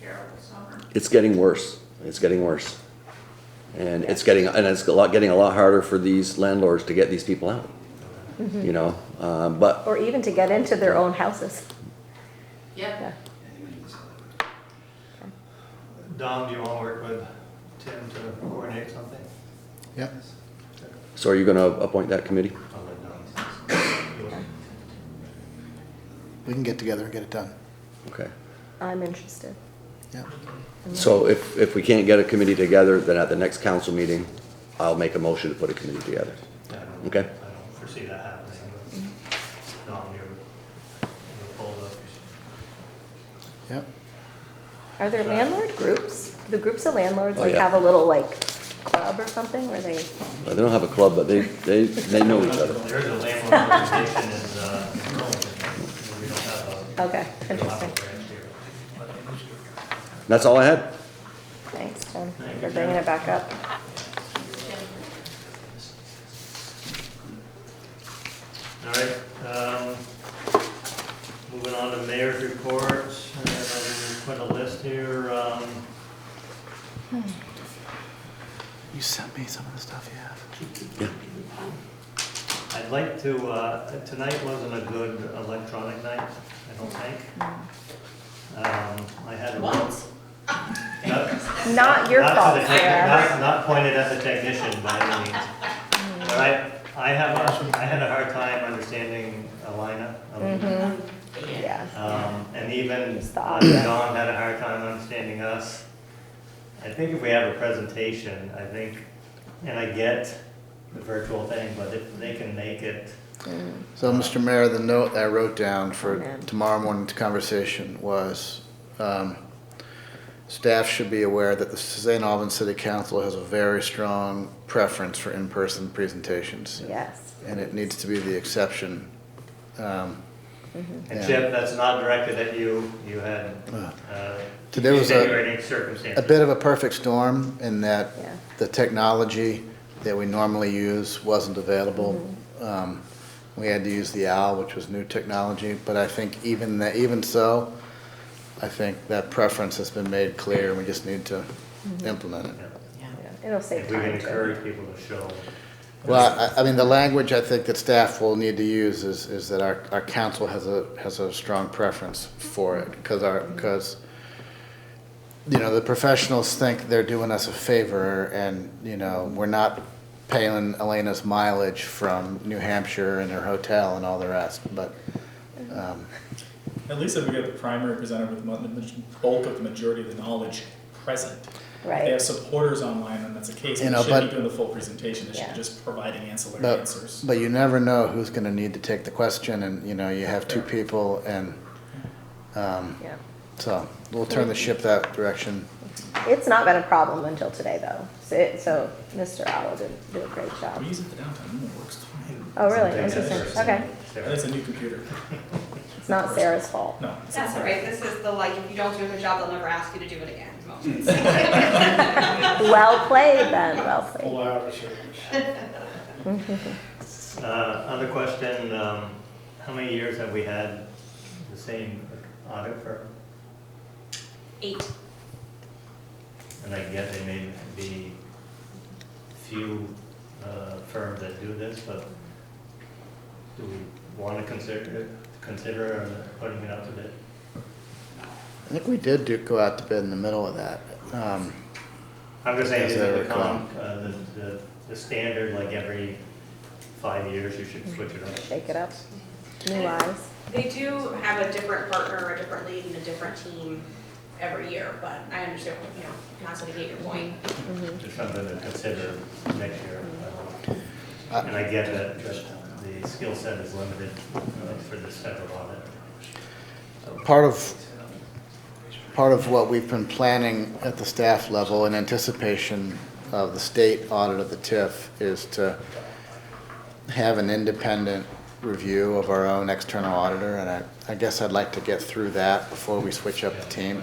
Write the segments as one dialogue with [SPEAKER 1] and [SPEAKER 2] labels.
[SPEAKER 1] terrible summer.
[SPEAKER 2] it's getting worse. It's getting worse. And it's getting, and it's a lot, getting a lot harder for these landlords to get these people out. You know, um, but
[SPEAKER 3] Or even to get into their own houses.
[SPEAKER 1] Yep.
[SPEAKER 3] Yeah.
[SPEAKER 4] Dom, do you want to work with Tim to coordinate something?
[SPEAKER 5] Yep.
[SPEAKER 2] so are you gonna appoint that committee?
[SPEAKER 4] I'll let Dom.
[SPEAKER 5] We can get together and get it done.
[SPEAKER 2] Okay.
[SPEAKER 3] I'm interested.
[SPEAKER 5] Yeah.
[SPEAKER 2] So if, if we can't get a committee together, then at the next council meeting, I'll make a motion to put a committee together.
[SPEAKER 4] Yeah, I don't-
[SPEAKER 2] Okay.
[SPEAKER 4] I don't foresee that happening. but Dom, you're, you're pulled up.
[SPEAKER 5] Yep.
[SPEAKER 3] Are there landlord groups? The groups of landlords
[SPEAKER 2] Oh,
[SPEAKER 3] like
[SPEAKER 2] yeah.
[SPEAKER 3] have a little like club or something where they,
[SPEAKER 2] They don't have a club, but they, they, they know each other.
[SPEAKER 4] There's a landlord organization in, uh, in Burlington. We don't have a,
[SPEAKER 3] okay,
[SPEAKER 4] we don't have
[SPEAKER 3] interesting.
[SPEAKER 4] a branch here.
[SPEAKER 2] That's all I had.
[SPEAKER 3] Thanks, Tim,
[SPEAKER 4] Thank you,
[SPEAKER 3] for bringing
[SPEAKER 4] Tim.
[SPEAKER 3] it back up.
[SPEAKER 4] All right, um, moving on to mayor's reports, and I put a list here, um,
[SPEAKER 5] You sent me some of the stuff you have.
[SPEAKER 4] I'd like to, uh, tonight wasn't a good electronic night, I don't think. Um, I had. a-
[SPEAKER 1] What?
[SPEAKER 4] Not-
[SPEAKER 3] Not your
[SPEAKER 4] not to
[SPEAKER 3] fault,
[SPEAKER 4] the tech-
[SPEAKER 3] Sarah.
[SPEAKER 4] Not, not pointed at the technician by any means. But I, I have, a- I had a hard time understanding Alina.
[SPEAKER 3] Mm-hmm.
[SPEAKER 4] um,
[SPEAKER 3] Yeah.
[SPEAKER 4] um, And even
[SPEAKER 3] It's the
[SPEAKER 4] uh,
[SPEAKER 3] audio.
[SPEAKER 4] Dawn had a hard time understanding us. I think if we have a presentation, I think, and I get the virtual thing, but if they can make it,
[SPEAKER 5] So, Mr. Mayor, the note I wrote down for
[SPEAKER 3] Amen.
[SPEAKER 5] tomorrow morning's conversation was, um, staff should be aware that the St. Albans City Council has a very strong preference for in-person presentations.
[SPEAKER 3] Yes.
[SPEAKER 5] And it needs to be the exception. Um,
[SPEAKER 4] and
[SPEAKER 5] Yeah.
[SPEAKER 4] Chip, that's not directed at you, you had,
[SPEAKER 5] uh,
[SPEAKER 4] uh,
[SPEAKER 5] Today was a-
[SPEAKER 4] extenuating
[SPEAKER 5] a
[SPEAKER 4] circumstances.
[SPEAKER 5] bit of a perfect storm in that
[SPEAKER 3] Yeah.
[SPEAKER 5] the technology that we normally use wasn't available. Um, We had to use the owl, which was new technology, but I think even that, even so, I think that preference has been made clear, and we just need to implement it.
[SPEAKER 4] Yeah.
[SPEAKER 3] Yeah, It'll save
[SPEAKER 4] If we can
[SPEAKER 3] time too.
[SPEAKER 4] encourage people to show.
[SPEAKER 5] Well, I, I mean, the language I think that staff will need to use is, is that our, our council has a, has a strong preference for it, because our, because, you know, the professionals think they're doing us a favor, and, you know, we're not paying Elena's mileage from New Hampshire and her hotel and all the rest, but, um,
[SPEAKER 6] At least if we get the primary presenter with mo- the maj- bulk of the majority of the knowledge present. If they
[SPEAKER 3] Right.
[SPEAKER 6] have supporters online, then that's the case.
[SPEAKER 5] You
[SPEAKER 6] They
[SPEAKER 5] know,
[SPEAKER 6] shouldn't
[SPEAKER 5] but-
[SPEAKER 6] be doing the full presentation. They should
[SPEAKER 3] Yeah.
[SPEAKER 6] be just providing ancillary
[SPEAKER 5] but,
[SPEAKER 6] answers.
[SPEAKER 5] but you never know who's gonna need to take the question, and, you know, you have two people, and, um,
[SPEAKER 3] Yeah.
[SPEAKER 5] so, we'll turn the ship that direction.
[SPEAKER 3] It's not been a problem until today though. So, it- so Mr. Owl did do a great job.
[SPEAKER 6] We use it for downtown, and it works fine.
[SPEAKER 3] Oh, really?
[SPEAKER 4] something
[SPEAKER 3] Interesting.
[SPEAKER 4] that's-
[SPEAKER 3] Okay.
[SPEAKER 6] And it's a new computer.
[SPEAKER 3] It's not Sarah's fault.
[SPEAKER 6] No. it's
[SPEAKER 1] That's
[SPEAKER 6] not.
[SPEAKER 1] all right, this is the like, if you don't do a good job, they'll never ask you to do it again moment.
[SPEAKER 3] Well played then, well played. Mm-hmm.
[SPEAKER 4] Uh, Other question, um, how many years have we had the same audit firm?
[SPEAKER 1] Eight,
[SPEAKER 4] And I get there may be few uh, firms that do this, but do we want to consider, consider putting it out to bid?
[SPEAKER 5] I think we did do, go out to bid in the middle of that. Um,
[SPEAKER 4] I'm just saying,
[SPEAKER 5] As
[SPEAKER 4] is
[SPEAKER 5] I
[SPEAKER 4] it the
[SPEAKER 5] recall.
[SPEAKER 4] con, uh, the- the, the standard, like every five years, you should switch it up?
[SPEAKER 3] Shake it up. New eyes.
[SPEAKER 1] they do have a different partner, a different lead and a different team every year, but I understand, you know, not to negate your point.
[SPEAKER 4] Just something to consider next year.
[SPEAKER 5] I-
[SPEAKER 4] And I get that, that the skill set is limited uh, for this type of audit.
[SPEAKER 5] Part of, part of what we've been planning at the staff level in anticipation of the state audit of the TIF is to have an independent review of our own external auditor, and I, I guess I'd like to get through that before we switch up the team.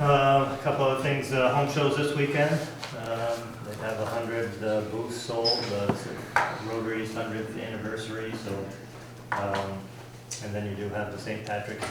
[SPEAKER 4] Uh, A couple of things, uh, home shows this weekend. Um, They have a hundred booths sold, uh, Rotary's hundredth anniversary, so. um, And then you do have the St. Patrick's